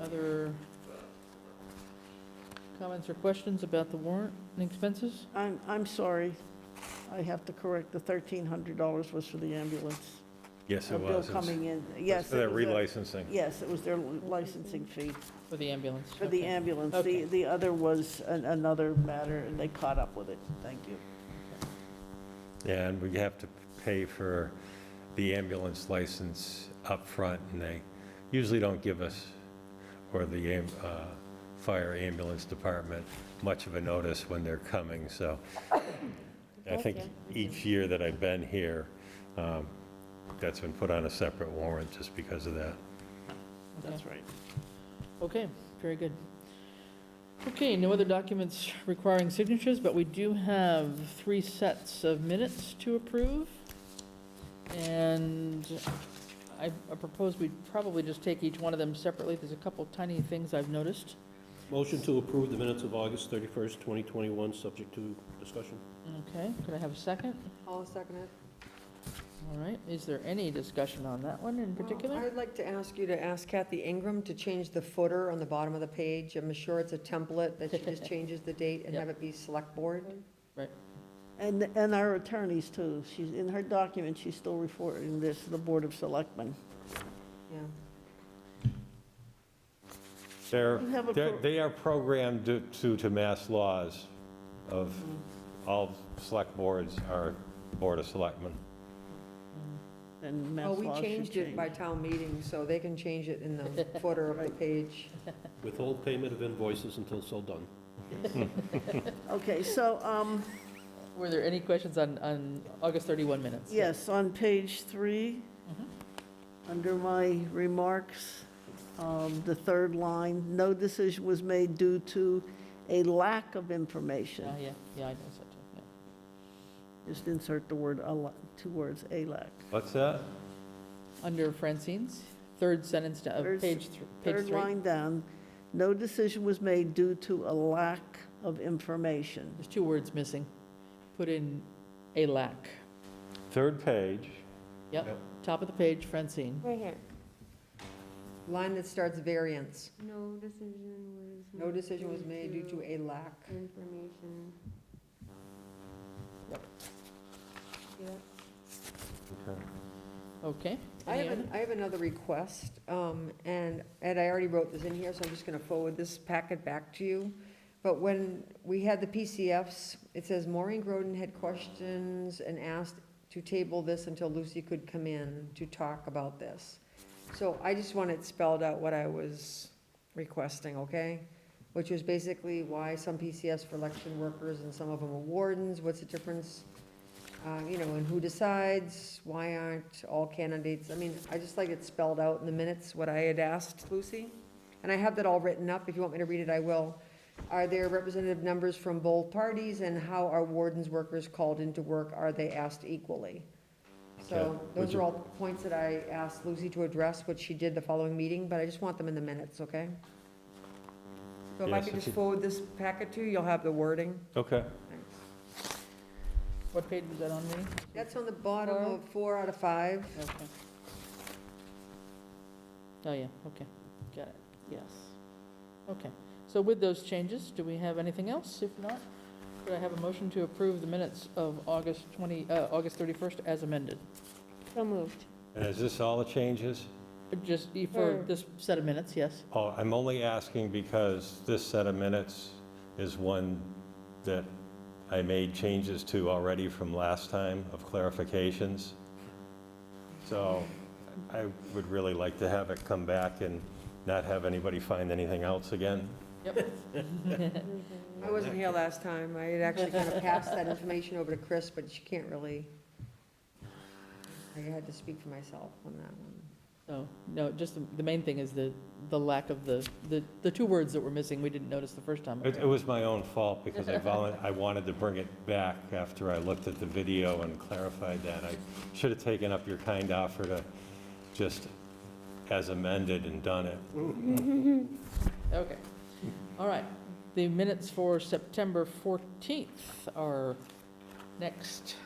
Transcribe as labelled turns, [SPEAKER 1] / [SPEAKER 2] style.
[SPEAKER 1] other comments or questions about the warrant and expenses?
[SPEAKER 2] I'm, I'm sorry. I have to correct, the $1,300 was for the ambulance.
[SPEAKER 3] Yes,
[SPEAKER 2] A
[SPEAKER 3] it was.
[SPEAKER 2] bill coming in, yes.
[SPEAKER 3] That's For
[SPEAKER 2] it
[SPEAKER 3] that
[SPEAKER 2] was their-
[SPEAKER 3] relicensing.
[SPEAKER 2] Yes, it was their licensing fee
[SPEAKER 1] For the ambulance?
[SPEAKER 2] for the
[SPEAKER 1] okay.
[SPEAKER 2] ambulance.
[SPEAKER 1] Okay.
[SPEAKER 2] The, the other was an- another matter, and they caught up with it. Thank you.
[SPEAKER 3] Yeah, and we have to pay for the ambulance license up front, and they usually don't give us, or the am- uh, fire ambulance department, much of a notice when they're coming, so I think
[SPEAKER 1] Okay.
[SPEAKER 3] each year that I've been here, um, that's been put on a separate warrant just because of that.
[SPEAKER 1] Okay.
[SPEAKER 2] That's right.
[SPEAKER 1] Okay, very good. Okay, no other documents requiring signatures, but we do have three sets of minutes to approve. And I I propose we probably just take each one of them separately. There's a couple tiny things I've noticed.
[SPEAKER 4] Motion to approve the minutes of August 31st, 2021, subject to discussion.
[SPEAKER 1] Okay, could I have a second?
[SPEAKER 5] I'll second it.
[SPEAKER 1] All right, is there any discussion on that one in particular?
[SPEAKER 5] I'd like to ask you to ask Kathy Ingram to change the footer on the bottom of the page. I'm sure it's a template that she just changes the date and have it be select board.
[SPEAKER 2] And, and our attorneys too. She's, in her document, she's still reporting this to the Board of Selectmen.
[SPEAKER 5] Yeah.
[SPEAKER 3] They're,
[SPEAKER 2] You have a
[SPEAKER 3] they're-
[SPEAKER 2] pro-
[SPEAKER 3] they are programmed to- to, to mass laws of,
[SPEAKER 2] Mm,
[SPEAKER 3] all select boards are Board of Selectmen.
[SPEAKER 1] Mm.
[SPEAKER 2] And mass
[SPEAKER 5] Oh, we
[SPEAKER 2] laws should
[SPEAKER 5] changed it by
[SPEAKER 2] change.
[SPEAKER 5] town meeting, so they can change it in the footer of the
[SPEAKER 2] Right.
[SPEAKER 5] page.
[SPEAKER 4] Withhold payment of invoices until so done.
[SPEAKER 2] Okay, so, um,
[SPEAKER 1] Were there any questions on, on August 31 minutes?
[SPEAKER 2] yes, on page three,
[SPEAKER 1] Mhm.
[SPEAKER 2] under my remarks, um, the third line, no decision was made due to a lack of
[SPEAKER 1] Oh,
[SPEAKER 2] information.
[SPEAKER 1] yeah, yeah, I noticed that too, yeah.
[SPEAKER 2] Just insert the word, a la- two words, a lack.
[SPEAKER 3] What's that?
[SPEAKER 1] Under Francine's, third sentence of
[SPEAKER 2] Third s-
[SPEAKER 1] page, thr- page
[SPEAKER 2] Third
[SPEAKER 1] three.
[SPEAKER 2] line down, no decision was made due to a lack of information.
[SPEAKER 1] There's two words missing. Put in a lack.
[SPEAKER 3] Third page.
[SPEAKER 1] Yep,
[SPEAKER 3] Yep.
[SPEAKER 1] top of the page, Francine.
[SPEAKER 6] Right here.
[SPEAKER 5] Line that starts variance.
[SPEAKER 6] No decision was.
[SPEAKER 5] No decision was made due to a lack.
[SPEAKER 6] Information.
[SPEAKER 1] Yep.
[SPEAKER 6] Yeah.
[SPEAKER 3] Okay.
[SPEAKER 1] Okay.
[SPEAKER 5] I
[SPEAKER 1] Any
[SPEAKER 5] have,
[SPEAKER 1] other-
[SPEAKER 5] an- I have another request, um, and Ed, I already wrote this in here, so I'm just gonna forward this packet back to you. But when we had the PCFs, it says Maureen Groden had questions and asked to table this until Lucy could come in to talk about this. So I just wanted spelled out what I was requesting, okay? Which was basically why some PCFs for election workers and some of them are wardens, what's the difference? uh, you know, and who decides, why aren't all candidates, I mean, I just like it spelled out in the minutes, what I had asked Lucy. And I have that all written up, if you want me to read it, I will. Are there representative numbers from both parties, and how are wardens workers called into work, are they asked equally? So
[SPEAKER 3] Okay. Would
[SPEAKER 5] those
[SPEAKER 3] you-
[SPEAKER 5] are all points that I asked Lucy to address, which she did the following meeting, but I just want them in the minutes, okay? So if I
[SPEAKER 3] Yes,
[SPEAKER 5] could
[SPEAKER 3] if
[SPEAKER 5] just
[SPEAKER 3] you-
[SPEAKER 5] forward this packet to you, you'll have the wording.
[SPEAKER 3] Okay.
[SPEAKER 5] Thanks.
[SPEAKER 1] What page is that on me?
[SPEAKER 5] That's on the bottom of four out of five.
[SPEAKER 1] Okay. Oh, yeah, okay, got it, yes. Okay, so with those changes, do we have anything else? If not, could I have a motion to approve the minutes of August 20, uh, August 31st as amended?
[SPEAKER 6] So moved.
[SPEAKER 3] And is this all the changes?
[SPEAKER 1] Just e- for
[SPEAKER 6] Sure.
[SPEAKER 1] this set of minutes, yes?
[SPEAKER 3] Oh, I'm only asking because this set of minutes is one that I made changes to already from last time of clarifications. So I would really like to have it come back and not have anybody find anything else again.
[SPEAKER 1] Yep,
[SPEAKER 5] I wasn't here last time. I had actually kind of passed that information over to Chris, but she can't really, I had to speak for myself on that one.
[SPEAKER 1] so, no, just the, the main thing is the, the lack of the, the, the two words that were missing, we didn't notice the first time.
[SPEAKER 3] It it was my own fault because I volun, I wanted to bring it back after I looked at the video and clarified that. I should have taken up your kind offer to just as amended and done it.
[SPEAKER 1] Okay, all right. The minutes for September 14th are next